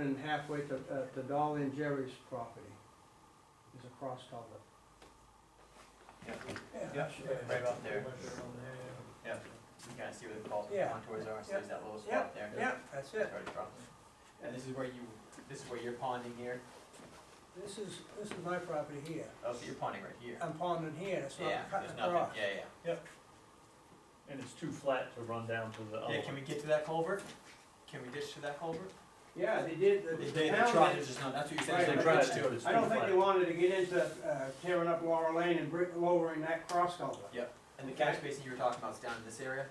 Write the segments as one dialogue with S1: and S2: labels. S1: And halfway to, uh, to Dolly and Jerry's property is a cross culvert.
S2: Yeah, right up there.
S3: Yeah,
S2: You kind of see where the fault
S3: Yeah.
S2: contours are, so
S3: Yeah.
S2: there's that little spot there.
S3: that's
S2: That's
S3: it.
S2: where it's from. And this is where you, this is where you're ponding here,
S3: This is, this is my property here.
S2: oh, so you're ponding right here.
S3: Uh, I'm ponding here, it's
S2: Yeah,
S3: not
S2: there's
S3: cutting
S2: nothing,
S3: across.
S2: yeah, yeah.
S4: And it's too flat to run down to the other
S2: Yeah, can
S4: one.
S2: we get to that culvert? Can we ditch to that culvert?
S1: Yeah, they did,
S2: They,
S1: the- the
S2: they
S1: town
S2: tried,
S1: did-
S2: it's just not, that's what you
S1: Right,
S2: said,
S1: but
S2: it's like ditch
S4: that's-
S2: to it.
S1: I don't think
S4: Right.
S1: they wanted to get into, uh, tearing up Laurel Lane and brick, lowering that cross culvert.
S2: And the catch basin you were talking about is down in this area,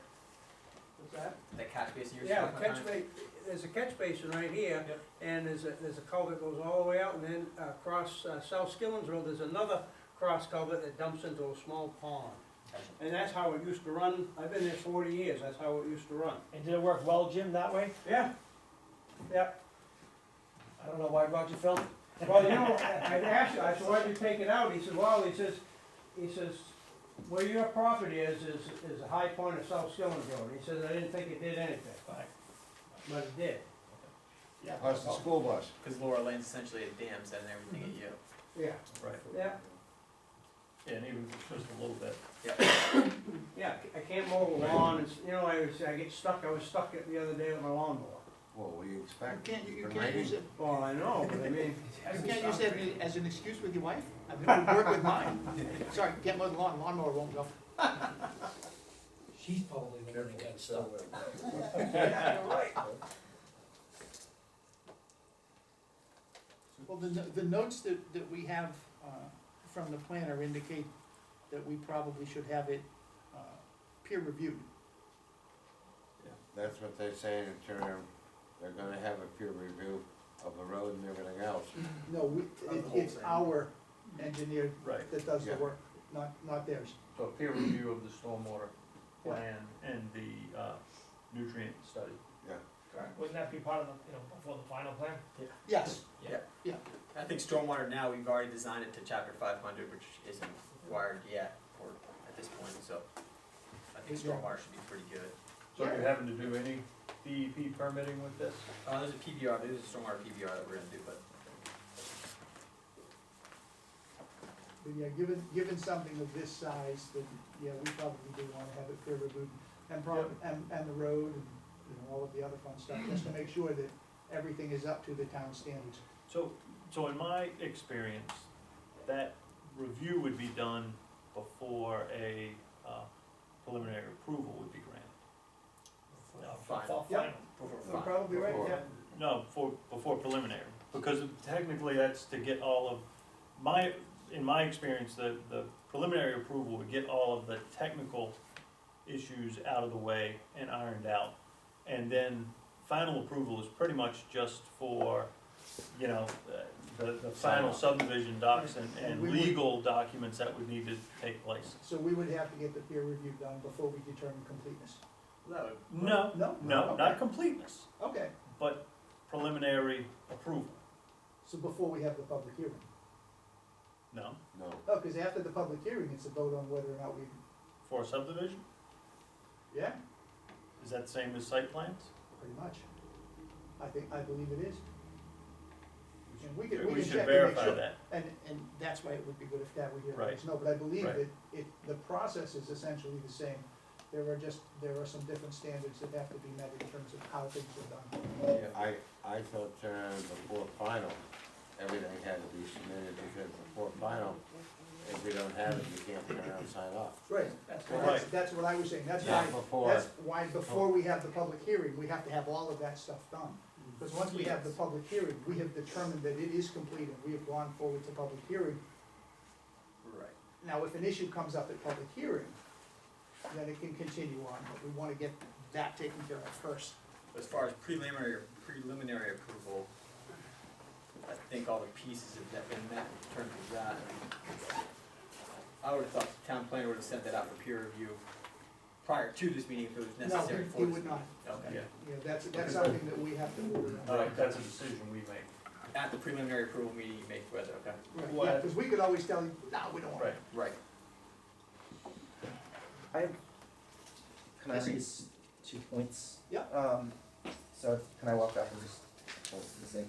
S1: What's that?
S2: that catch basin you were
S3: Yeah,
S2: talking about?
S3: catch ba, there's a catch basin right here,
S2: Yep.
S3: and there's a, there's a culvert goes all the way out, and then uh, across uh, South Skillings Road, there's another cross culvert that dumps into a small pond.
S2: Gotcha.
S1: And that's how it used to run, I've been there forty years, that's how it used to run.
S5: And did it work well, Jim, that way?
S1: Yeah,
S5: I don't know why Roger felt.
S1: well, you know, I I'd asked, him, I said, why'd you take it out? He said, well, he says, he says, where your property is, is, is a high point of South Skilling Road. He says, I didn't think it did anything,
S5: Right.
S1: but it did.
S5: Yeah.
S6: Plus the school bus.
S2: Cause Laura Lane's essentially a dam setting everything at you.
S3: Mm-hmm.
S1: Yeah,
S4: Right,
S1: yeah,
S4: yeah, and even if it's just a little bit.
S1: yeah, I can't mow the lawn, it's, you know, I was, I get stuck, I was stuck it the other day with my lawnmower.
S6: Well, what do you expect?
S7: You can't, you
S6: Been
S7: can't use
S6: raining.
S7: it,
S1: Well, I know, but I mean,
S7: you can't use that as an excuse with your wife? I mean, it would work with mine. Sorry, can't mow the lawn, lawnmower won't go.
S5: She's probably the one that got stuck.
S7: Well, the, the notes that, that we have, uh, from the planner indicate that we probably should have it, uh, peer reviewed.
S6: That's what they're saying in term, they're gonna have a peer review of the road and everything else.
S7: No, we, it, it's our engineer
S4: Right.
S7: that does the
S6: Yeah.
S7: work, not, not theirs.
S4: So peer review of the stormwater plan and the uh, nutrient study.
S5: Wouldn't that be part of the, you know, before the final plan?
S7: Yes,
S2: I think stormwater now, we've already designed it to chapter five hundred, which isn't required yet, or at this point, so. I think
S7: Yeah.
S2: stormwater should be pretty good.
S4: So are you having to do any DEP permitting with this?
S2: Uh, there's a PBR, there's a stormwater PBR that we're gonna do, but
S7: but yeah, given, given something of this size, then, yeah, we probably do wanna have it peer reviewed. And prob, and, and the road and, you know, all of the other fun stuff, just to make sure that everything is up to the town standards.
S4: So, so in my experience, that review would be done before a uh, preliminary approval would be granted.
S5: No,
S2: Fine.
S5: it's all
S1: Yep.
S5: final.
S1: you're
S2: before five.
S1: probably right, yeah.
S4: No, before, before preliminary, because technically that's to get all of, my, in my experience, the, the preliminary approval would get all of the technical issues out of the way and ironed out. And then final approval is pretty much just for, you know, the, the final subdivision docs and,
S7: And
S4: and
S7: we would-
S4: legal documents that would need to take place.
S7: So we would have to get the peer review done before we determine completeness?
S2: No,
S4: No,
S7: No?
S4: no, not
S7: Okay.
S4: completeness,
S7: Okay,
S4: but preliminary approval,
S7: so before we have the public hearing?
S4: no,
S6: No,
S7: Oh, because after the public hearing, it's a vote on whether or not we,
S4: for a subdivision?
S7: yeah,
S4: Is that the same as site plans?
S7: pretty much. I think, I believe it is. And we can,
S4: We
S7: we can
S4: should
S7: check and make
S4: verify
S7: sure.
S4: that.
S7: And, and that's why it would be good if that were here, let
S4: Right.
S7: us know, but I believe
S4: Right.
S7: that it, the process is essentially the same. There are just, there are some different standards that have to be met in terms of how things are done.
S6: I, I thought term before final, everything had to be submitted because before final, if we don't have it, you can't turn around and sign off.
S7: Right, that's, what- that's,
S4: Right. Oh.
S7: that's what I was saying, that's why
S6: Not before,
S7: That's why, before we have the public hearing, we have to have all of that stuff done.
S4: Mm.
S7: Because once we have the public hearing, we have determined that it is complete and we have gone forward to public hearing.
S2: right.
S7: Now, if an issue comes up at public hearing, then it can continue on, but we wanna get that taken care of first.
S2: As far as preliminary, preliminary approval, I think all the pieces have that been met in terms of that. I would have thought the town planner would have sent that out for peer review prior to this meeting if it was
S7: No,
S2: necessary
S7: he-
S2: for
S7: he
S2: this.
S7: would not.
S2: Okay.
S4: Yeah.
S7: You know, that's, that's something that we have to order. on.
S2: Alright.
S4: That's a decision we make.
S2: At the preliminary approval meeting, you make whether, okay?
S7: Right, yeah, because we could always tell you, no, we don't want it.
S2: Right.
S8: I have, can I
S7: Yes.
S8: raise two points?
S7: Yeah.
S8: Um, so can I walk back and just, hold the same